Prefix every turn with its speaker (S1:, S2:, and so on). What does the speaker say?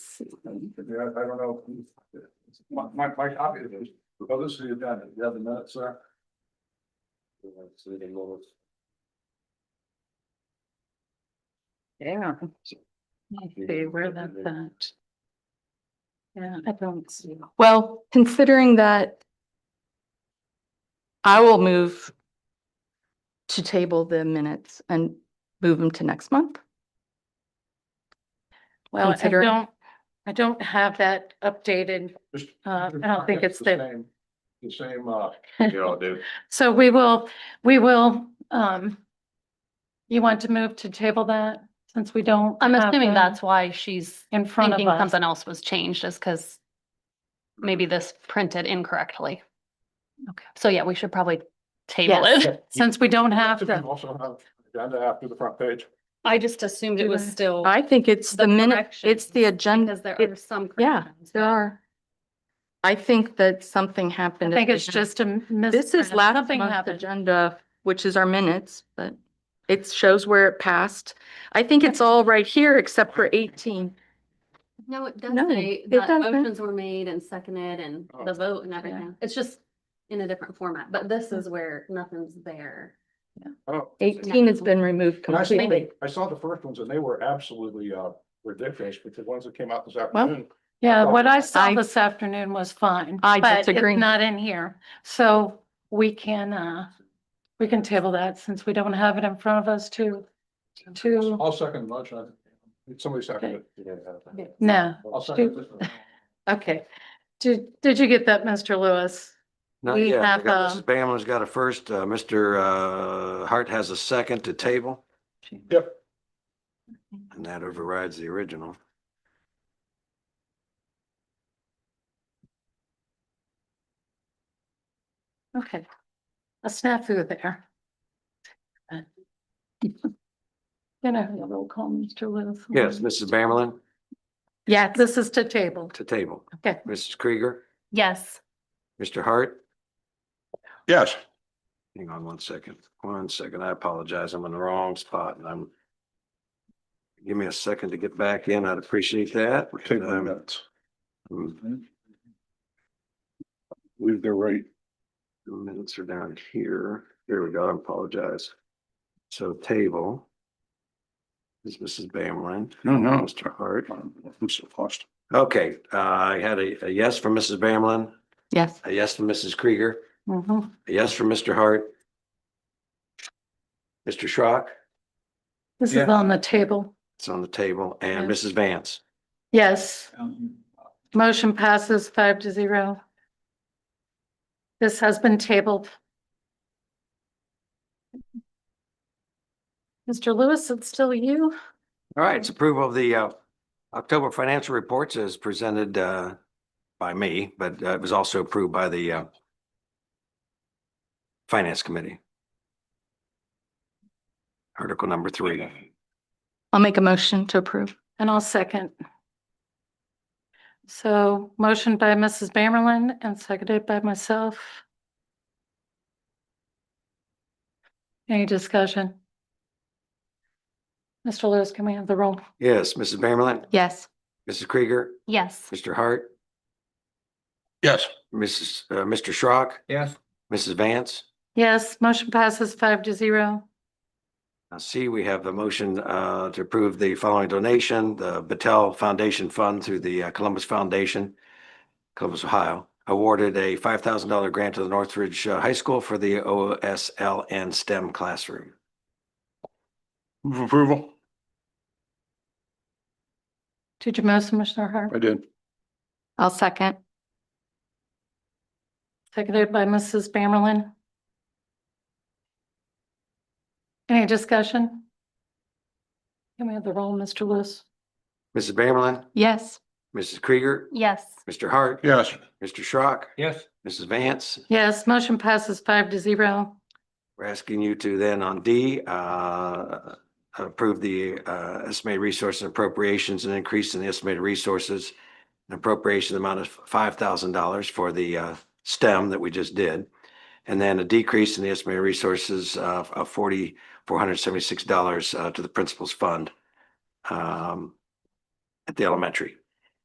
S1: Yeah, I don't know. My, my, my copy of this, oh, this is the agenda, you have the minutes, sir?
S2: Yeah. Okay, where that's at. Yeah, I don't see.
S3: Well, considering that I will move to table the minutes and move them to next month.
S2: Well, I
S3: Considering-
S2: don't, I don't have that updated.
S1: Just-
S2: Uh, I don't think it's
S1: the
S2: the-
S1: same. The same, uh,
S2: So we will, we will, um, you want to move to table that since we don't?
S4: I'm
S2: have
S4: assuming
S2: them
S4: that's why she's
S2: In front of
S4: thinking
S2: us.
S4: something else was changed is because maybe this printed incorrectly. Okay, so yeah, we should probably table
S2: Yes.
S4: it.
S2: Since we don't have
S1: do
S2: them.
S1: you also have agenda after the front page.
S4: I just assumed it was still.
S3: I think it's the minute, it's the agenda.
S4: Because there
S3: it-
S4: are some.
S3: Yeah,
S4: corrections.
S3: there are. I think that something
S2: I
S3: happened. at
S2: think
S3: the
S2: it's
S3: agenda.
S2: just a mis.
S3: This is last
S2: something
S3: month's
S2: happened.
S3: agenda, which is our minutes, but it shows where it passed. I think it's all right here except for eighteen.
S4: No, it does
S3: No,
S4: say
S3: it
S4: that
S3: doesn't.
S4: motions were made and seconded and
S1: Oh.
S4: the vote and everything. It's just in a different format, but this is where nothing's there.
S1: Oh,
S3: Eighteen has been removed
S1: and I saw,
S3: completely.
S1: I saw the first ones and they were absolutely, uh, ridiculous, but the ones that came out this
S3: Well,
S1: afternoon.
S2: Yeah, what I saw
S3: I-
S2: this afternoon was fine.
S3: I
S2: but it's
S3: disagree.
S2: Not in here. So we can, uh, we can table that since we don't have it in front of us to, to,
S1: I'll second the motion. I think Somebody seconded it.
S2: no.
S1: I'll second this one.
S2: Okay. Did, did you get that, Mr. Lewis?
S5: Not
S2: We
S5: yet. I
S2: have,
S5: got-
S2: um,
S5: Mrs. Bamlin's got a first. Uh, Mr. uh, Hart has a second to table.
S1: Yep.
S5: And that overrides the original.
S2: Okay. A snafu there. Then I have a roll call, Mr. Lewis.
S5: Yes, Mrs. Bamlin
S2: Yeah, this is to table.
S5: to table.
S2: Okay.
S5: Mrs. Krieger,
S4: Yes.
S5: Mr. Hart,
S1: Yes.
S5: hang on one second, one second. I apologize. I'm in the wrong spot and I'm give me a second to get back in. I'd appreciate that.
S1: Take the
S5: Um,
S1: minutes.
S5: mm,
S1: Leave their right.
S5: The minutes are down here. There we go. I apologize. So table. This is Mrs. Bamlin.
S1: No, no.
S5: Mr. Hart.
S1: I'm so lost.
S5: Okay, uh, I had a, a yes from Mrs. Bamlin,
S3: Yes.
S5: a yes from Mrs. Krieger,
S2: Mhm.
S5: a yes from Mr. Hart. Mr. Schrock,
S2: This is
S1: Yeah.
S2: on the table.
S5: it's on the table, and
S2: Yeah.
S5: Mrs. Vance.
S2: Yes.
S1: Um,
S2: Motion passes five to zero. This has been tabled. Mr. Lewis, it's still you?
S5: All right, it's approval of the uh, October financial reports as presented uh, by me, but uh, it was also approved by the uh, Finance Committee. Article number three.
S3: I'll make a motion to approve.
S2: And I'll second. So motion by Mrs. Bamerlin and seconded by myself. Any discussion? Mr. Lewis, can we have the roll?
S5: Yes, Mrs. Bamerlin,
S3: Yes.
S5: Mrs. Krieger,
S4: Yes.
S5: Mr. Hart,
S1: Yes.
S5: Mrs., uh, Mr. Schrock,
S1: Yes.
S5: Mrs. Vance?
S2: Yes, motion passes five to zero.
S5: I see we have a motion uh, to approve the following donation, the Battelle Foundation Fund through the uh, Columbus Foundation, Columbus, Ohio, awarded a five thousand dollar grant to the Northridge uh, High School for the OSLN STEM classroom.
S1: Move approval.
S2: Did you motion, Commissioner Hart?
S1: I did.
S3: I'll second.
S2: Seconded by Mrs. Bamerlin. Any discussion? Can we have the roll, Mr. Lewis?
S5: Mrs. Bamerlin,
S3: Yes.
S5: Mrs. Krieger,
S4: Yes.
S5: Mr. Hart,
S1: Yes.
S5: Mr. Schrock,
S1: Yes.
S5: Mrs. Vance.
S2: Yes, motion passes five to zero.
S5: We're asking you to then on D, uh, approve the uh, estimated resources and appropriations and increase in the estimated resources and appropriation amount of five thousand dollars for the uh, STEM that we just did. And then a decrease in the estimated resources of of forty, four hundred uh, seventy-six dollars to the principal's fund um, at the elementary.